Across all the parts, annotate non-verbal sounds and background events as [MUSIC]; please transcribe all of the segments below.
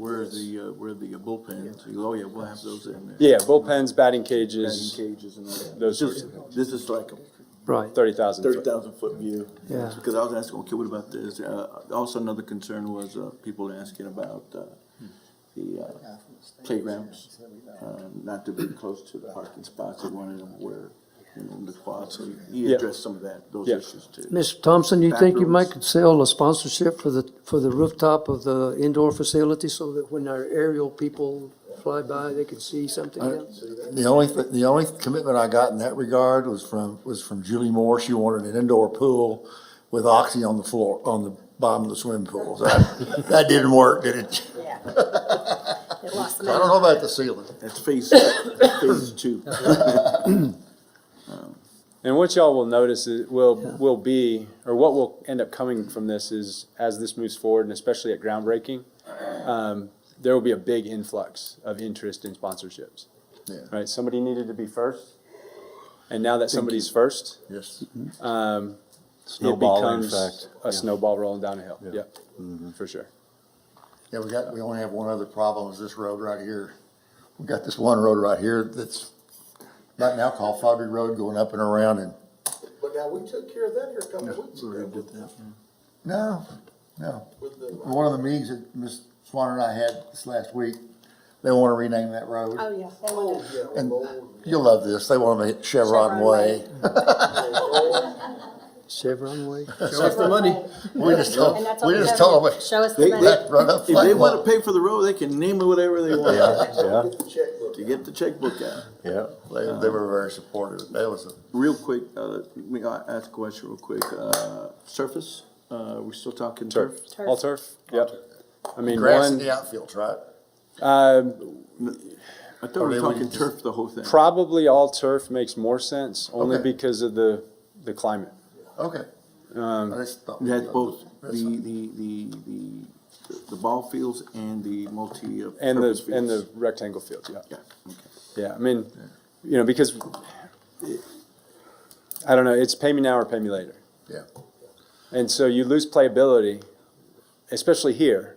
Where the, uh, where the bullpens, oh yeah, we'll have those in there. Yeah, bullpens, batting Batting cages, cages and all that. Those Just- This is like a Right, thirty thousand. thirty thousand foot view. Yeah. Because I was asking, okay, what about this? Uh, also another concern was, uh, people asking about, uh, the, uh, playgrounds, uh, not to be close to the parking spots. They wanted them where, you know, the quad, so he Yeah. addressed some of that, those Yeah. issues too. Ms. Thompson, you think you Bathrooms. might could sell a sponsorship for the, for the rooftop of the indoor facility so that when our aerial people fly by, they can see something else? The only, thi- the only commitment I got in that regard was from, was from Julie Moore. She wanted an indoor pool with oxy on the floor, on the bottom of the swimming pool. So That [LAUGHS] that didn't work, did it? Yeah. It lost the I don't know about the ceiling. That's phase, phase two. And what y'all will notice is, will, will be, or what will end up coming from this is, as this moves forward, and especially at groundbreaking, um, there will be a big influx of interest in sponsorships. Yeah. Right, somebody needed to be first, and now that somebody's first, Yes. um, it Snowball becomes effect, a snowball rolling down a hill, yep, for sure. Yeah, we got, we only have one other problem is this road right here. We got this one road right here that's right now called Fabry Road going up and around and, But now, we took care of that here a couple of weeks ago with, no, no. with the, One of the meetings that Ms. Swan and I had this last week, they want to rename that road. Oh, yeah. They oh, wanna- yeah, And oh, you'll love this. They want to hit Chevron Chevron Way. Way. oh, Chevron Way? Show us the money. We just tell, And that's we all just have. tell them, Show us the They- money. they- run up. If they wanna pay for the road, they can name it whatever they want Yeah, get the checkbook. to get the checkbook out. yeah. They, they were very supportive. That was, a- Real quick, uh, may I ask a question real quick? Uh, surface, uh, we're still talking turf? Turf, all turf, yep. I mean, grass in one, the outfields, right? um, I thought we Or they were would talking just- turf the whole thing. Probably all turf makes more sense, only Okay. because of the, the climate. Okay. Um. You had both the, the, the, the, the ball fields and the multi. uh, And the, purpose and the fields. rectangle field, yeah. Yeah, okay. Yeah, I mean, you know, because, I don't know, it's pay me now or pay me later. Yeah. And so you lose playability, especially here,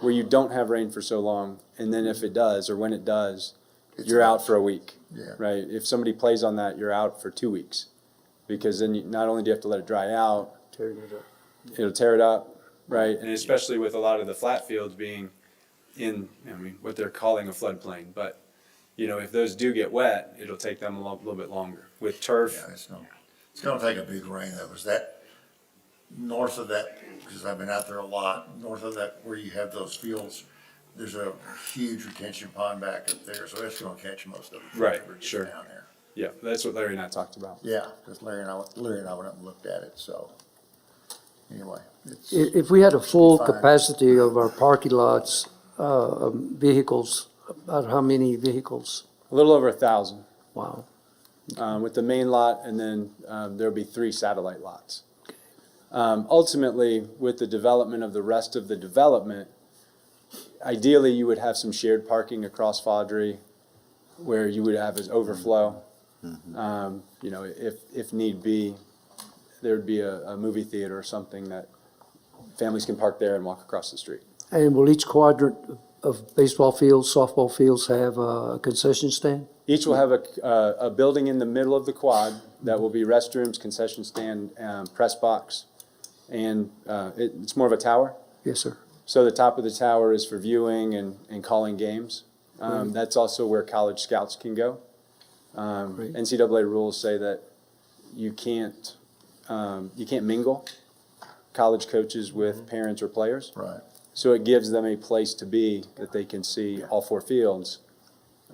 where you don't have rain for so long, and then if it does, or when it does, It's you're out. out for a week. Yeah. Right? If somebody plays on that, you're out for two weeks. Because then you, not only do you have to let it dry out, Tearing it up. it'll tear it up, right? And especially with a lot of the flat fields being in, I mean, what they're calling a floodplain, but, you know, if those do get wet, it'll take them a lo- little bit longer. With turf, Yeah, it's gonna, it's gonna take a big rain though, is that north of that, because I've been out there a lot, north of that where you have those fields, there's a huge retention pond back up there, so it's gonna catch most of it. Right, whatever gets sure. Down there. yeah, that's what Larry and I talked about. Yeah, because Larry and I, went- Larry and I went up and looked at it, so, anyway, it's, If, if we had a full Fine. capacity of our parking lots, uh, um, vehicles, about how many vehicles? A little over a thousand, Wow. um, with the main lot, and then, um, there'll be three satellite lots. Um, ultimately, with the development of the rest of the development, ideally, you would have some shared parking across Fodry where you would have as overflow. Um, you know, if, if need be, there'd be a, a movie theater or something that families can park there and walk across the street. And will each quadrant of baseball fields, softball fields have a concession stand? Each will have a, uh, a building in the middle of the quad that will be restrooms, concession stand, um, press box. And, uh, it, it's more of a tower. Yes, sir. So the top of the tower is for viewing and, and calling games. Um, that's also where college scouts can go. Um, Great. NCAA rules say that you can't, um, you can't mingle college coaches with parents or players. right. So it gives them a place to be that they can see all four fields.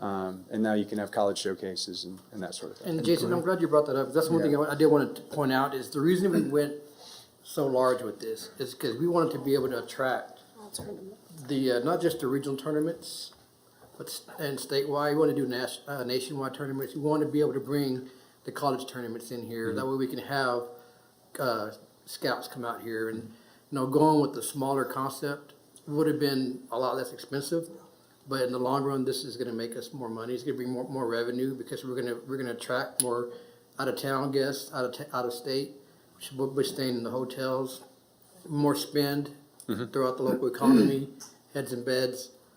Um, and now you can have college showcases and, and that sort of thing. And Jason, I'm glad you brought that up. 'cause That's one thing I I did want to point out is the reason we went so large with this is because we wanted to be able to attract the, uh, not just the regional tournaments, but, s- and statewide, we want to do nas- uh, nationwide tournaments. We want to be able to bring the college tournaments in here. That way we can have, uh, scouts come out here and, you know, going with the smaller concept would have been a lot less expensive. But in the long run, this is gonna make us more money. It's gonna bring more, more revenue because we're gonna, we're gonna attract more out of town guests, out of, ta- out of state, which, will be staying in the hotels, more spend throughout the local economy, heads and beds.